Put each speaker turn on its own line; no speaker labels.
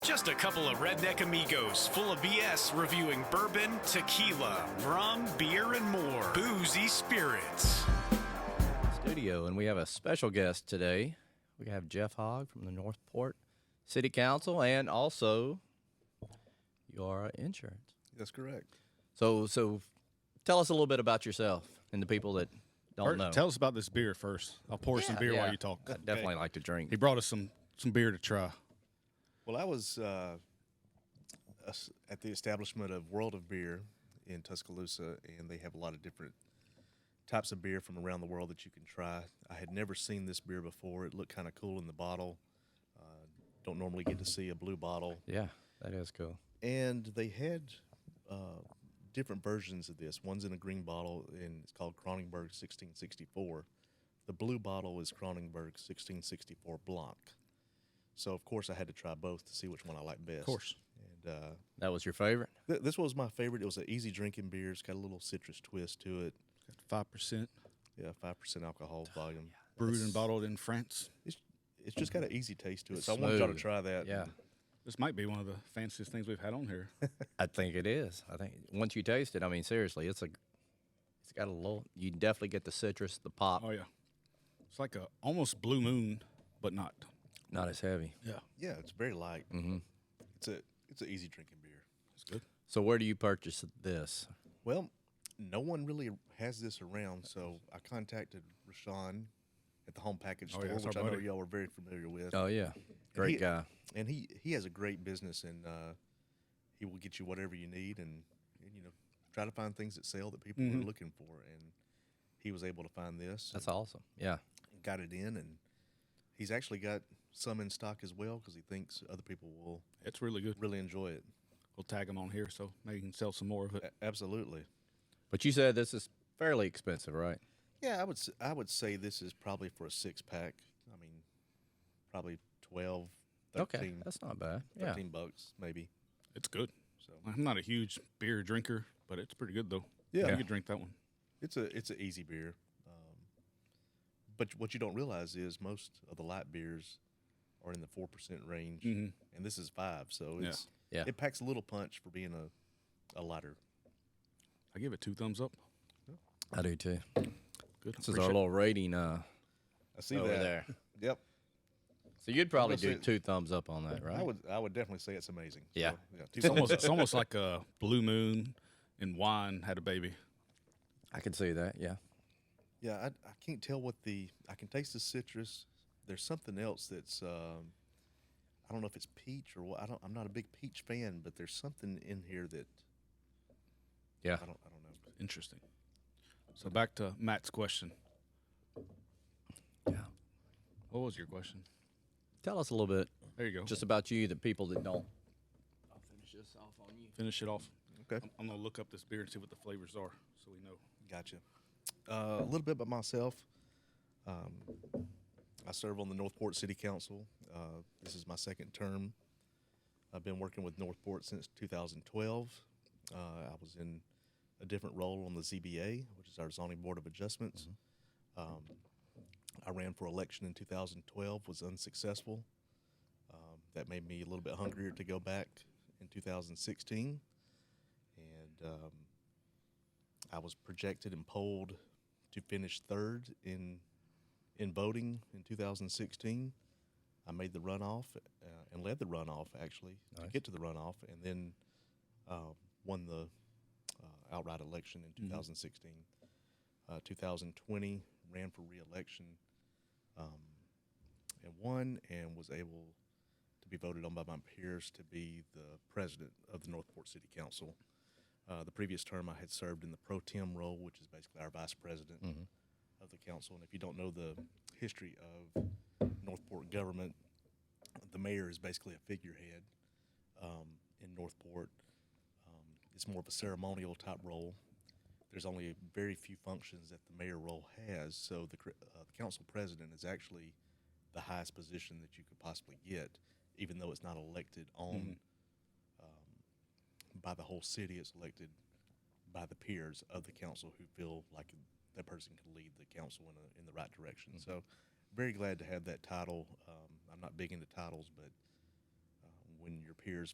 Just a couple of redneck amigos full of BS reviewing bourbon, tequila, rum, beer, and more. Boozy spirits.
studio, and we have a special guest today. We have Jeff Hogg from the Northport City Council, and also your insurance.
That's correct.
So, so tell us a little bit about yourself and the people that don't
Or
know.
Tell us about this beer first. I'll pour some beer
Yeah.
while you talk.
I definitely like to drink.
He brought us some some beer to try.
Well, I was uh, us- at the establishment of World of Beer in Tuscaloosa, and they have a lot of different types of beer from around the world that you can try. I had never seen this beer before. It looked kind of cool in the bottle. Uh, don't normally get to see a blue bottle.
Yeah, that is cool.
and they had uh, different versions of this. One's in a green bottle, and it's called Kronenberg 1664. The blue bottle is Kronenberg 1664 Blanc. So, of course, I had to try both to see which one I liked best. Of
course.
And uh,
That was your favorite.
th- this was my favorite. It was an easy drinking beer. It's got a little citrus twist to it.
Five percent
Yeah, 5% alcohol volume.
brewed and bottled in France.
It's, it's just got an easy taste to it. so, I wanted y'all to
smooth.
try that.
Yeah,
This might be one of the fanciest things we've had on here.
I think it is. I think once you taste it, I mean, seriously, it's a, it's got a little. You definitely get the citrus, the pop,
oh yeah, it's like a almost blue moon, but not.
not as heavy.
Yeah,
Yeah, it's very light. Mm-hmm. It's, a, it's an easy drinking beer.
it's good.
So, where do you purchase this?
Well, no one really has this around, so I contacted Rashawn at the home package
Oh,
store,
yeah, that's
which I
our
know
buddy.
y'all were very familiar with.
Oh yeah,
And
great
he-
guy.
And he he has a great business, and uh, he will get you whatever you need, and, and you know try to find things that sell that people
Mm-hmm.
are looking for. And he was able to find this,
That's awesome. Yeah.
and got it in, and he's actually got some in stock as well because he thinks other people will
It's really good.
really enjoy it.
We'll tag them on here so maybe you can sell some more of it.
A- absolutely.
But you said this is fairly expensive, right?
Yeah, I would s- I would say this is probably for a six pack. I mean, probably 12, 13,
okay. That's not bad. Yeah.
13 bucks maybe.
It's good.
So
I'm not a huge beer drinker, but it's pretty good though.
Yeah.
you could drink that one.
it's a it's an easy beer. Um, but what you don't realize is most of the light beers are in the four percent range, and this is five. So
Yeah.
Mm-hmm.
it's
Yeah.
it packs a little punch for being a a lighter.
I give it two thumbs up.
I do too.
Good.
This is our little rating uh,
I see
over
that.
there.
Yep.
So you'd probably
gonna
do
say-
two thumbs up on that, right?
I would I would definitely say it's amazing.
Yeah.
So, yeah. two
It's almost
thumbs
it's almost like a blue moon and wine had a baby.
I could see that. Yeah.
Yeah, I, I can't tell what the. I can taste the citrus. There's something else that's. Um, I don't know if it's peach or what. I don't. I'm not a big peach fan, but there's something in here that
Yeah.
I don't. I don't know.
Interesting. So back to Matt's question.
Yeah.
What was your question?
Tell us a little bit
There you go.
just about you, the people that don't.
finish it off.
Okay,
I'm gonna look up this beer and see what the flavors are, so we know.
gotcha. Uh, a little bit about myself. Um, I serve on the Northport City Council. Uh, this is my second term. I've been working with Northport since 2012. Uh, I was in a different role on the ZBA, which is our Zoning Board of Adjustments. Um, I ran for election in 2012, was unsuccessful. Um, that made me a little bit hungrier to go back in 2016. And um, I was projected and polled to finish third in in voting in 2016. I made the runoff uh, and led the runoff actually to get to the runoff, and then uh, won the uh, outright election in 2016. Uh, 2020 ran for re-election um, and won, and was able to be voted on by my peers to be the president of the Northport City Council. Uh, the previous term, I had served in the pro tem role, which is basically our vice president of the council. And if you don't know the history of Northport government, the mayor is basically a figurehead um, in Northport. Um, it's more of a ceremonial type role. There's only very few functions that the mayor role has, so the, cr- uh, the council president is actually the highest position that you could possibly get, even though it's not elected on by the whole city. It's elected by the peers of the council who feel like that person can lead the council in, a, in the right direction. So, very glad to have that title. Um, I'm not big into titles, but uh, when your peers